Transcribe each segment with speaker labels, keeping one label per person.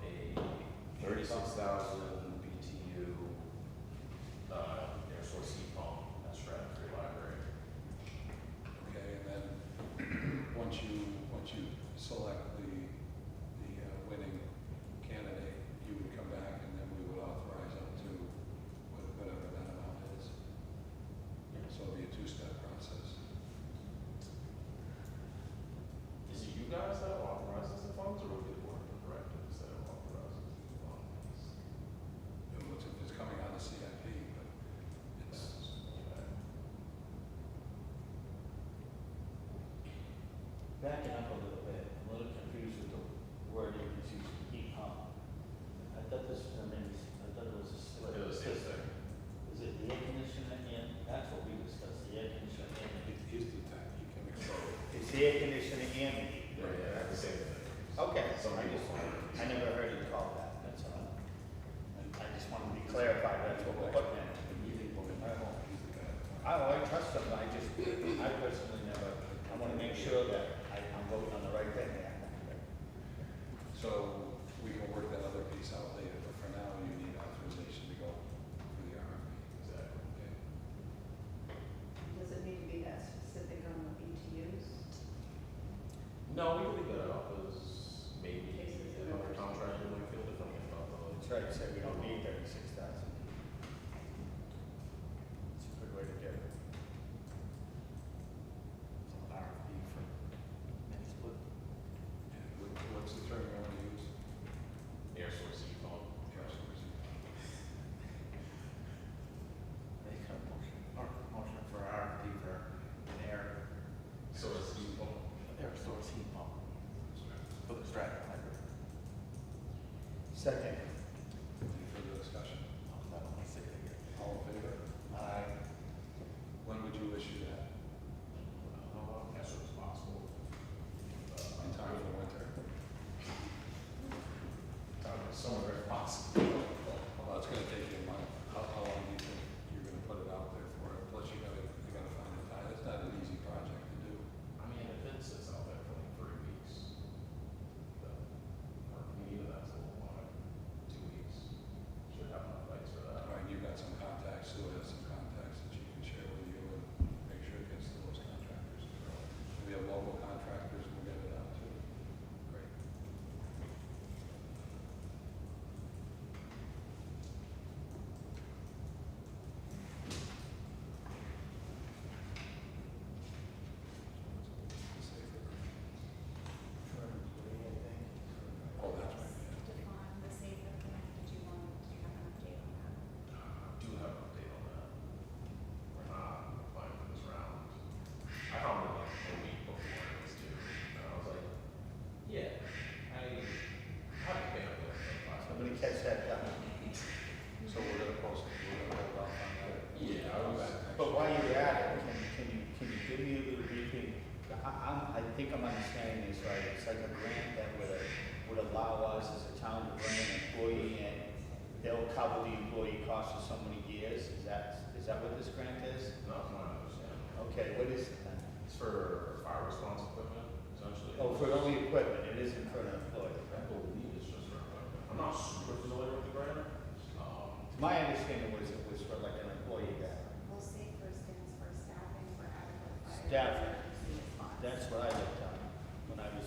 Speaker 1: uh,
Speaker 2: once you, once you select the, the uh, winning candidate, you would come back and then we would authorize up to wha- whatever that amount is. So it'll be a two-step process.
Speaker 1: Is it you guys that authorizes the funds, or would it be the board of directors that authorizes the funds?
Speaker 2: It looks like it's coming out of CIP, but it's,
Speaker 1: Okay.
Speaker 3: Backing up a little bit, I'm a little confused with the word that was used, e-com. I thought this was, a mini- I thought it was a split.
Speaker 1: They're the same
Speaker 3: system.
Speaker 1: thing.
Speaker 3: Is it the air conditioner and, that's what we discussed, the air conditioner and.
Speaker 2: it is the time you can accelerate.
Speaker 3: It's the air conditioner and the heat.
Speaker 1: Yeah, yeah, that's the same thing.
Speaker 3: Okay, so
Speaker 1: Some
Speaker 3: I
Speaker 1: people
Speaker 3: just,
Speaker 1: find it.
Speaker 3: I never heard it called that, that's all. I- I just wanted to be clarified, that's what we're looking at. I don't, I trust them, but I just, I personally never, I wanna make sure that I, I'm voting on the right thing there.
Speaker 2: So we can work that other piece out later, but for now, you need authorization to go for the RFP.
Speaker 1: Exactly.
Speaker 2: Okay?
Speaker 4: Does it need to be that specific on the BTUs?
Speaker 1: No, we can leave that out, because maybe
Speaker 4: Cases of
Speaker 1: another
Speaker 4: emergency.
Speaker 1: contract might feel differently about the.
Speaker 3: That's right, so we don't need thirty-six thousand. It's a good way to do it. It's an RFP for next month.
Speaker 2: And what- what's the term you want to use?
Speaker 1: Air source
Speaker 3: E
Speaker 1: heat pump.
Speaker 2: Air source.
Speaker 3: Make a motion, or motion for RFP for an air, E
Speaker 1: Source heat pump.
Speaker 3: air source heat pump
Speaker 2: Any
Speaker 3: for the Stratton Library. Second.
Speaker 2: further discussion?
Speaker 3: Oh, I don't wanna say it again.
Speaker 2: All in favor?
Speaker 3: Aye.
Speaker 2: When would you issue that?
Speaker 1: Uh, As soon as possible. Uh,
Speaker 2: In time for winter?
Speaker 1: Time is somewhere if possible.
Speaker 2: Well, it's gonna take you a month. How, how long do you think you're gonna put it out there for? Plus, you gotta, you gotta find the time. It's not an easy project to do.
Speaker 1: I mean, if it sits out there for like three weeks, then, or maybe that's a little while, two weeks, should have enough lights for that.
Speaker 2: All right, you've got some contacts, Sue has some contacts that you can share with you and make sure it gets to those contractors. If we have local contractors, we'll get it out too. Great. Oh, that's right, yeah.
Speaker 5: Define the safer plan, did you want, do you have an update on that?
Speaker 1: I do have an update on that. We're not applying for this round. I found it like a week before it was due, and I was like, yeah, I haven't been up there for five
Speaker 3: Somebody
Speaker 1: minutes.
Speaker 3: catch that, down.
Speaker 2: So we're gonna post, it. we're gonna hold off on that.
Speaker 1: Yeah, I
Speaker 2: Come
Speaker 1: was-
Speaker 2: back next
Speaker 3: But
Speaker 2: year.
Speaker 3: while you're at it, can, can you, can you give me a little briefing? I, I'm, I think I'm understanding this right, it's like a grant that would, uh, would allow us as a town to bring an employee in. They'll cover the employee cost for so many years, is that, is that what this grant is?
Speaker 1: Not from what I understand.
Speaker 3: Okay, what is it then?
Speaker 1: It's for fire response equipment, essentially.
Speaker 3: Oh, for only equipment, it isn't for an employee,
Speaker 1: I
Speaker 3: right?
Speaker 1: believe it's just for equipment. I'm not super familiar with the grant. Um,
Speaker 3: My understanding was it was for like an employee that,
Speaker 5: Well, safer stands for staffing for adequate fire.
Speaker 3: Staffing.
Speaker 5: emergency response.
Speaker 3: that's what I looked on when I was,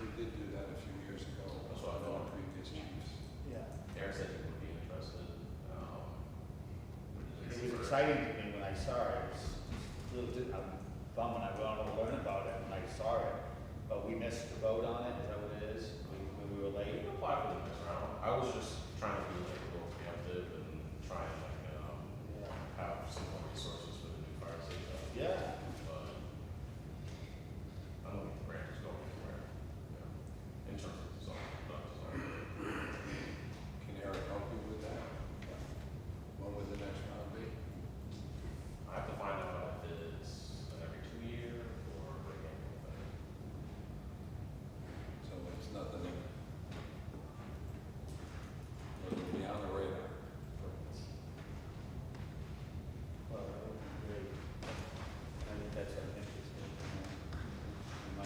Speaker 2: We did do that a few years ago,
Speaker 1: That's
Speaker 2: with
Speaker 1: what I
Speaker 2: our
Speaker 1: thought.
Speaker 2: previous chiefs.
Speaker 3: yeah.
Speaker 1: Eric said he would be interested, um.
Speaker 3: It was
Speaker 1: for-
Speaker 3: exciting to me when I saw it, it was just a little bit, I'm bummed, I wanted to learn about it when I saw it, but we missed the
Speaker 1: um,
Speaker 3: boat